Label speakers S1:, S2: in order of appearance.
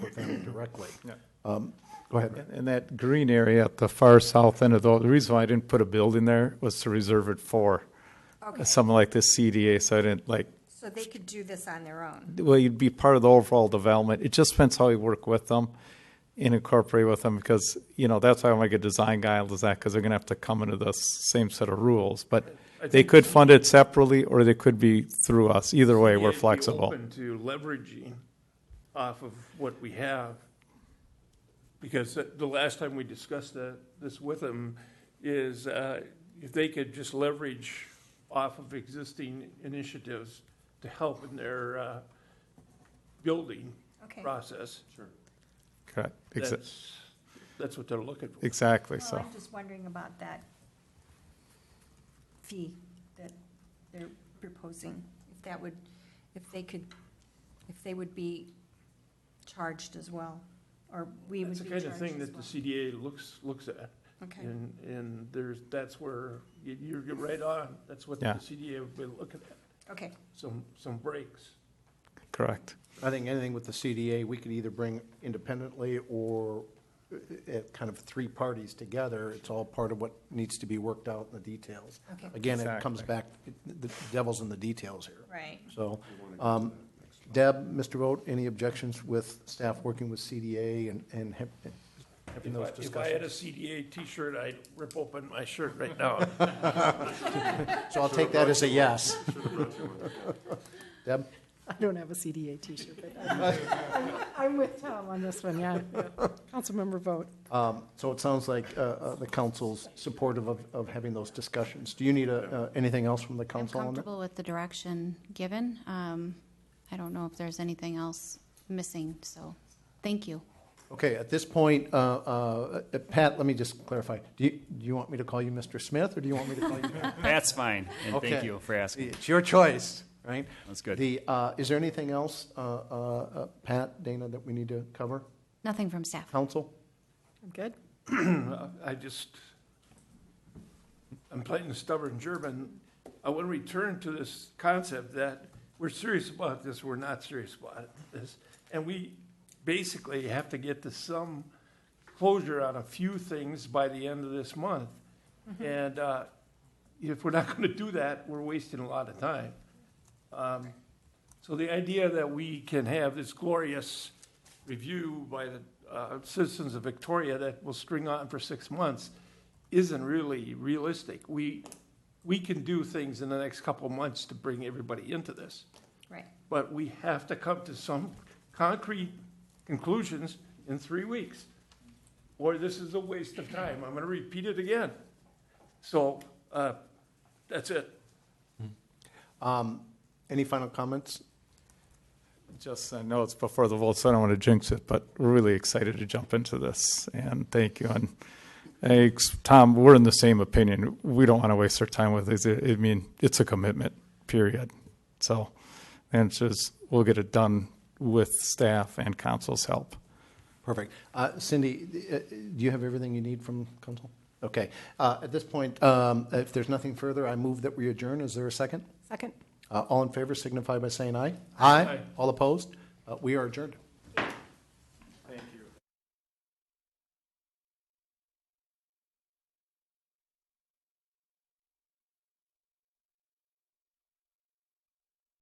S1: directly. Um,
S2: Yeah.
S1: Go ahead.
S2: And that green area at the far south end of the, the reason why I didn't put a building there was to reserve it for
S3: Okay.
S2: something like this CDA, so I didn't like,
S3: So they could do this on their own.
S2: well, you'd be part of the overall development. It just depends how you work with them and incorporate with them, because, you know, that's why I'm like a design guy, all this, that, because they're gonna have to come into the same set of rules. But they could fund it separately, or they could be through us. Either way, we're
S4: I'd be
S2: flexible.
S4: Open to leveraging off of what we have. Because the last time we discussed that, this with them, is uh, if they could just leverage off of existing initiatives to help in their uh, building
S3: Okay.
S4: process.
S2: Correct, Exa-
S4: That's, that's what they're looking for.
S2: exactly,
S3: Well,
S2: so.
S3: I'm just wondering about that fee that they're proposing, if that would, if they could, if they would be charged as well, or we would
S4: That's
S3: be
S4: the
S3: charged
S4: kind
S3: as well.
S4: of thing that the CDA looks, looks at.
S3: Okay,
S4: And, and there's, that's where, you- you're you're right on, that's what the
S2: Yeah.
S4: CDA would be looking at.
S3: okay,
S4: some, some breaks.
S2: Correct.
S1: I think anything with the CDA, we could either bring independently or uh, uh, kind of three parties together. It's all part of what needs to be worked out in the details.
S3: Okay.
S1: Again, it comes
S2: Exactly.
S1: back, the devil's in the details here.
S3: right.
S1: So, um, Deb, Mr. Vogt, any objections with staff working with CDA and, and ha- having
S4: If I,
S1: those
S4: if I had a
S1: discussions?
S4: CDA T-shirt, I'd rip open my shirt right now.
S1: So I'll take that as a yes. Deb?
S5: I don't have a CDA T-shirt, but I'm- I'm- I'm with Tom on this one, yeah. yeah. Councilmember vote.
S1: Um, So it sounds like uh, uh, the council's supportive of, of having those discussions. Do you need a- uh, anything else from the
S6: I'm
S1: council on that?
S6: comfortable with the direction given. Um, I don't know if there's anything else missing, so, thank you.
S1: Okay, at this point, uh, uh, uh, Pat, let me just clarify. Do you, do you want me to call you Mr. Smith, or do you want me to call you?
S7: That's fine, and thank
S1: Okay.
S7: you for asking.
S1: It's your choice, right?
S7: That's good.
S1: The, uh, is there anything else, uh, uh, uh, Pat, Dana, that we need to cover?
S6: Nothing from staff.
S1: Council?
S5: I'm good.
S4: I just, I'm playing the stubborn German. I want to return to this concept that we're serious about this, we're not serious about this. And we basically have to get to some closure on a few things by the end of this month. And uh, if we're not going to do that, we're wasting a lot of time. Um, So the idea that we can have this glorious review by the uh, citizens of Victoria that will string on for six months isn't really realistic. We, we can do things in the next couple of months to bring everybody into this,
S3: Right,
S4: but we have to come to some concrete conclusions in three weeks, or this is a waste of time. I'm going to repeat it again. So uh, that's it.
S1: Um, Any final comments?
S2: Just, I know it's before the vote, so I don't want to jinx it, but we're really excited to jump into this, and thank you. And, hey, ex- Tom, we're in the same opinion. We don't want to waste our time with this. I I mean, it's a commitment, period. So, and it's just, we'll get it done with staff and council's help.
S1: Perfect. Uh, Cindy, uh, do you have everything you need from council? Okay. Uh, At this point, um, if there's nothing further, I move that we adjourn. Is there a second?
S5: Second.
S1: Uh, All in favor signify by saying aye.
S4: Aye.
S1: All opposed? Uh, We are adjourned.